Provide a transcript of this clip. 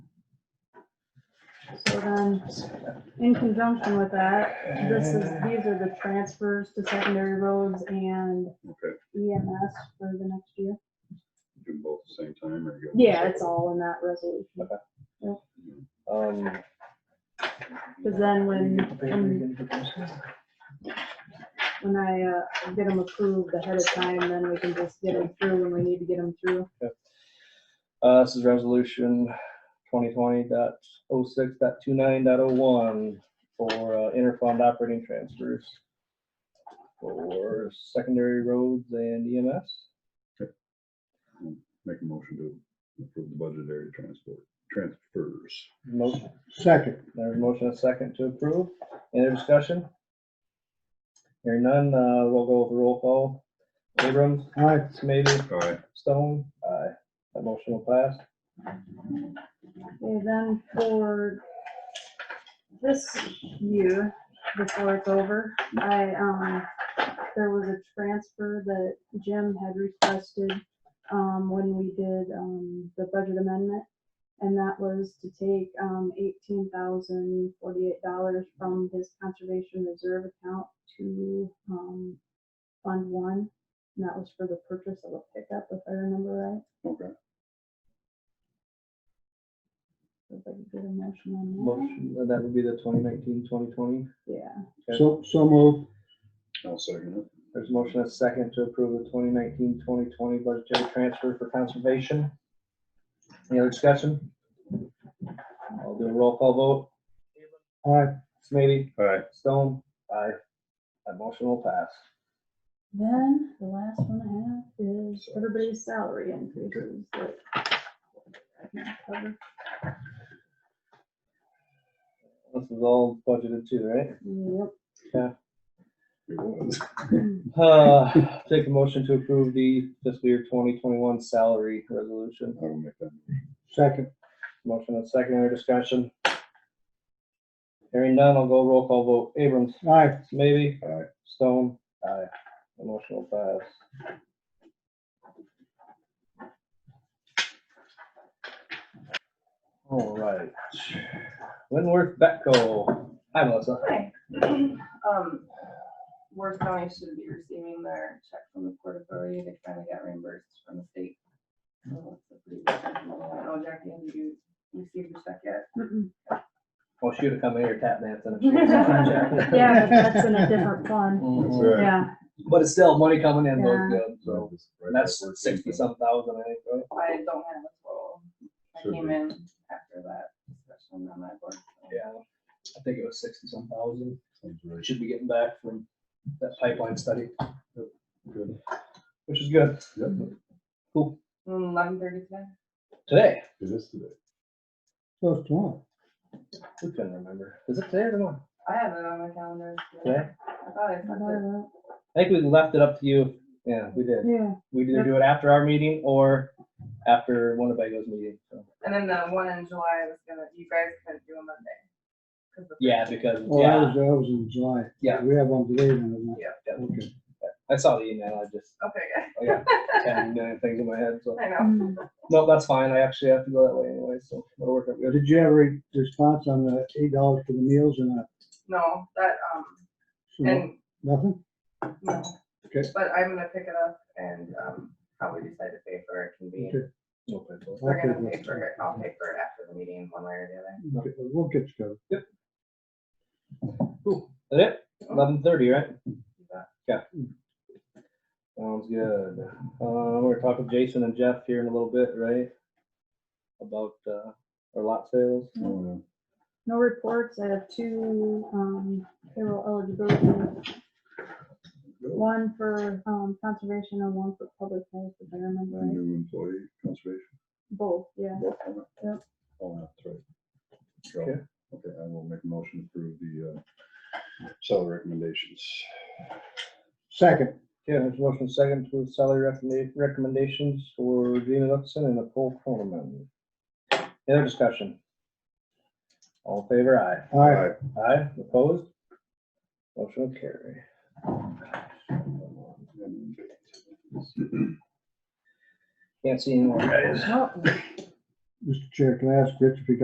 So then, in conjunction with that, this is, these are the transfers to secondary roads and Okay, EMS for the next year. do them both at the same time or? you go- Yeah, it's all in that resolution. Um, Cause then when, um, when, when I, uh, get them approved ahead of time, then we can just get them through when we need to get them through. uh, this is resolution 2020.06.29.01 for uh, interfund operating transfers for secondary roads and E EMS. Make a motion to approve the budgetary transport, transfers. Motion, Second. there's a motion and a second to approve. Any other discussion? Hearing none, uh, we'll go with roll call. Abrams, Aye. Smitty, All right, Stone, aye. That motion will pass. Okay, then for this year, before it's over, I, um, there was a transfer that Jim had requested, um, when we did, um, the budget amendment. And that was to take, um, eighteen thousand forty-eight dollars from his conservation reserve account to, um, Fund One. And that was for the purchase of a pickup, if I remember right. okay. So if I could get a motion on that. Motion, and that would be the 2019-2020. Yeah. So, so moved. I'll second it. There's a motion and a second to approve the 2019-2020 budgetary transfer for conservation. Any other discussion? I'll do a roll call vote. Aye. Smitty, All right, Stone, aye. That motion will pass. Then the last one I have is everybody's salary increases that. I can cover. This is all budgeted too, right? Yep. it was. Uh, take a motion to approve the fiscal year twenty twenty-one salary resolution. I will make that. Second. Motion and second, any discussion? Hearing none, I'll go roll call vote. Abrams, Aye. maybe? Aye. Stone? Aye. The motion will pass. All right. Winworth Betco. Hi, Melissa. Hi. Um, Worth County should be receiving their check from the Port Authority. They finally got reimbursed from the state. So that's a pretty good thing. I don't know, Jackie, have you received your check yet? Mm-mm. Well, Oh, she would have come in here tap dancing. if she was on check. Yeah, but that's in a different fund. Mhm. Right. Yeah, But it's still money coming in, both Yeah. good, so, Right, and that's where it came sixty from. some thousand, I think, right? I don't have a total. I Should came be. in after that discussion on that board. so. Yeah, I think it was sixty some thousand, Sounds we right. should be getting back from that pipeline study, Good. which is good, Yep, Mm, Eleven thirty today? today, it is today. So it's tomorrow. we couldn't remember, is it today or tomorrow? I have it on my calendar. so Today, I thought I I sent thought it. about- I think we left it up to you, yeah, we did, yeah, we either do it after our meeting or after Winnebago's meeting, so. And then the one in July was gonna, you guys couldn't do a Monday. 'cause the- Yeah, because, Oh, that was, yeah, that was in July. Yeah. We have one today and I'm yeah, yeah. Okay. I saw the email, I just, Okay, good. I got ten million things in my head, so, I know. mm, no, that's fine, I actually have to go that way anyway, so, it'll work out good. Uh, Did you have a response on the eight dollars for the meals and that? No, that, um, So, Mm-hmm. and Nothing? No. Okay. But I'm gonna pick it up and, um, probably decide to pay for it can be, Okay. No problem. I'll we're gonna take pay it. for it, I'll pay for it after the meeting, one way or the other. Okay, We'll get you covered. Is that it? Eleven thirty, right? But Sounds good. Uh, we're talking to Jason and Jeff here in a little bit, right? About, uh, our lot sales. Oh, no reports, I have two, um, payroll eligibility. One for, um, conservation and one for public health, if I remember yeah. right. New employee conservation. Both, yeah. Vote on it? Yep. Oh, that's right. Okay. So, Okay, I will make a motion to approve the uh, seller recommendations. Second. Okay, there's a motion second to approve salary recommenda- recommendations for Gina Lipson and Nicole Croneman. Any other discussion? All in favor, aye. Aye. Aye, opposed? Motion will carry. And- Can't see anyone, guys. Mr. Chair, can I ask Rich if he got